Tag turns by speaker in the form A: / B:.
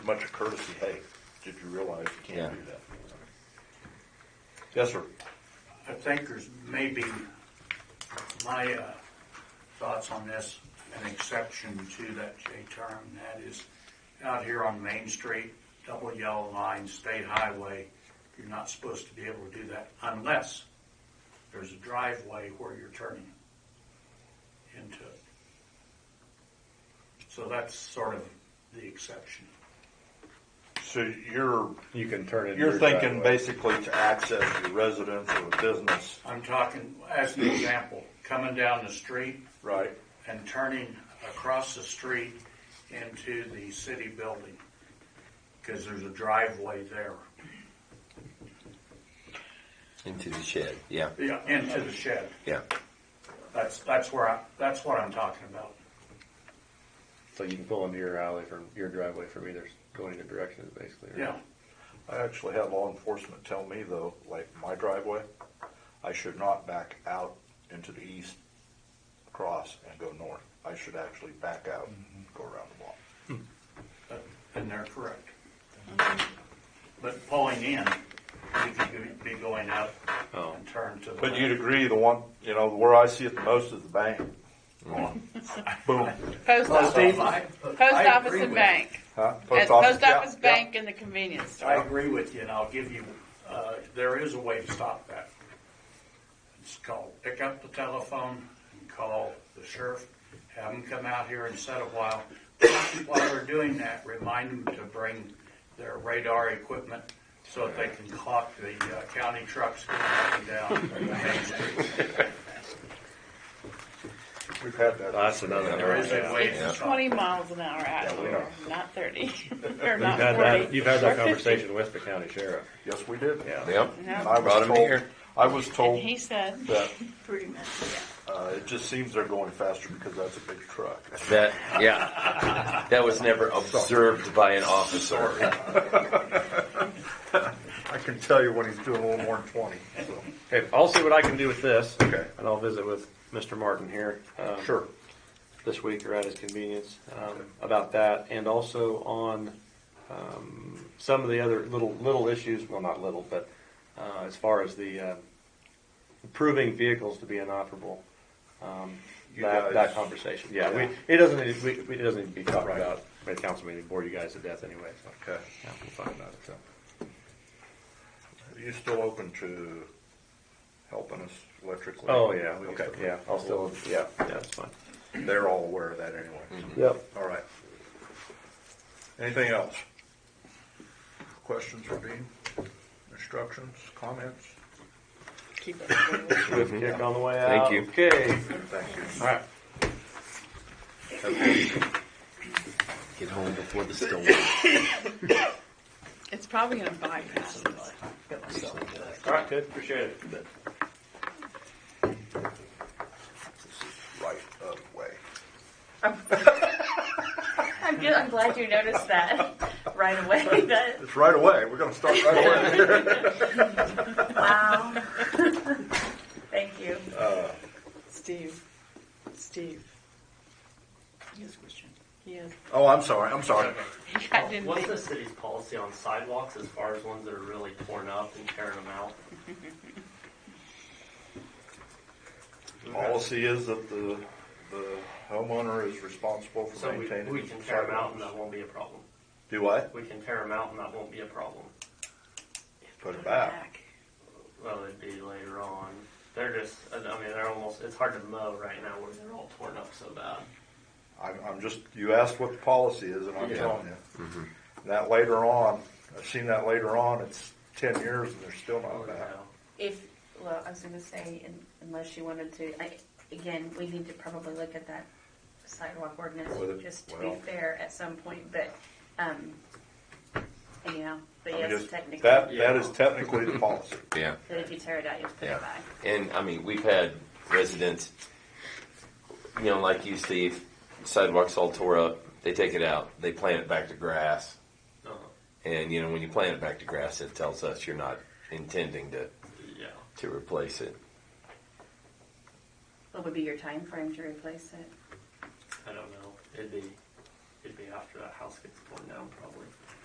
A: much of courtesy, hey, did you realize you
B: Yeah.
A: can't do that? Yes, sir.
C: I think there's maybe, my uh, thoughts on this, an exception to that J term, and that is out here on Main Street, double yellow line, state highway, you're not supposed to be able to do that unless there's a driveway where you're turning into it. So that's sort of the exception.
A: So you're,
D: You can turn it.
A: you're thinking basically to access your residence or business,
C: I'm talking, as an example, coming down the street,
A: right?
C: and turning across the street into the city building, because there's a driveway there,
B: Into the shed, yeah,
C: Yeah, into the shed.
B: yeah.
C: That's, that's where I, that's what I'm talking about.
D: So you can pull into your alley from, your driveway from either, going either direction, basically. right?
C: Yeah,
A: I actually had law enforcement tell me though, like my driveway, I should not back out into the east, cross and go north. I should actually back out and go around the block.
C: that- and they're correct. But pulling in, you could be going up
D: Oh.
C: and turn to the.
A: But
C: left.
A: you'd agree, the one, you know, where I see it the most is the bank. Boom,
E: Post
C: Well, Steve,
E: office,
C: I-
E: post
C: I
E: office
C: agree
E: and
C: with-
E: bank.
A: huh?
E: And post
A: yeah,
E: office,
A: yeah.
E: bank, and the convenience
C: I
E: store.
C: agree with you, and I'll give you, uh, there is a way to stop that. It's called, pick up the telephone and call the sheriff, have them come out here and set a while. While they're doing that, remind them to bring their radar equipment so that they can clock the uh, county trucks going up and down Main Street.
A: We've had that.
D: That's another.
C: There is a way to
E: It's
C: stop.
E: twenty miles an hour out here, not thirty, or
D: You've
E: not
D: had that,
E: forty.
D: you've had that
E: or 50.
D: conversation with the county sheriff.
A: Yes, we did.
D: Yeah.
B: Yep.
A: And
E: Yeah.
A: I was
B: Brought 'em
A: told-
B: here.
A: I was
E: And
A: told
E: he said,
A: that,
E: pretty much,
A: uh, it just seems they're going faster because that's a big truck.
B: That, yeah. That was never observed by an officer.
A: I can tell you when he's doing a little more than twenty, so.
D: Okay, I'll see what I can do with this.
A: Okay.
D: And I'll visit with Mr. Martin here. um,
A: Sure.
D: This week or at his convenience, um, about that and also on, um, some of the other little, little issues, well, not little, but, uh, as far as the, uh, proving vehicles to be inoperable. Um,
A: You
D: that,
A: guys-
D: that conversation, yeah, we, it doesn't, need- we, we- it doesn't need to be talked about by the council meeting, bore you guys to death anyway, so.
A: Okay.
D: Yeah, we'll talk about it, so.
A: Are you still open to helping us electrically?
D: Oh, yeah, we,
A: Okay.
D: yeah, I'll still, yeah, yeah, that's fine.
A: They're all aware of that anyway.
D: Yep.
A: All right. Anything else? Questions for Dean? Instructions, comments?
E: keep it.
D: Good kick on the way
B: Thank
D: out.
B: you.
D: Okay,
A: Thank you.
D: all right.
B: Get home before the storm.
E: It's probably gonna bypass us.
D: All right, good, appreciate it.
A: This is right of way.
F: I'm good. I'm glad you noticed that right away. That
A: It's right away. We're gonna start right away.
F: wow. Thank you.
C: Uh.
E: Steve, Steve. He is Christian. He is.
A: Oh, I'm sorry, I'm sorry.
E: I didn't
G: What's the
E: think,
G: city's policy on sidewalks as far as ones that are really torn up and tearing them out?
A: Policy is that the, the homeowner is responsible for
G: So we,
A: maintaining.
G: we
A: the
G: can tear them out and that
A: sidewalks.
G: won't be a problem.
A: Do what?
G: We can tear them out and that won't be a problem.
A: Put it back.
G: Well, it'd be later on. They're just, I mean, they're almost, it's hard to mow right now where they're all torn up so bad.
A: I'm, I'm just, you asked what the policy is, and I'm
G: Yeah.
A: telling you. That later on, I've seen that later on, it's ten years and they're still not
G: You
A: back.
G: know?
F: If well, I was going to say, un- unless you wanted to, I, again, we need to probably look at that sidewalk ordinance
A: Well, it-
F: just to
A: well.
F: be fair at some point. But um, anyhow, but
A: I mean,
F: yes,
A: just-
F: technically,
A: That, that is technically the policy.
B: Yeah.
F: that if you tear it out, you have to put
B: Yeah.
F: it back.
B: And I mean, we've had residents, you know, like you, Steve, sidewalks all tore up. They take it out, they plant it back to grass.
G: Uh-huh.
B: And, you know, when you plant it back to grass, it tells us you're not intending to,
G: Yeah.
B: to replace it.
F: What would be your time frame to replace it?
G: I don't know. It'd be, it'd be after that house gets torn down probably.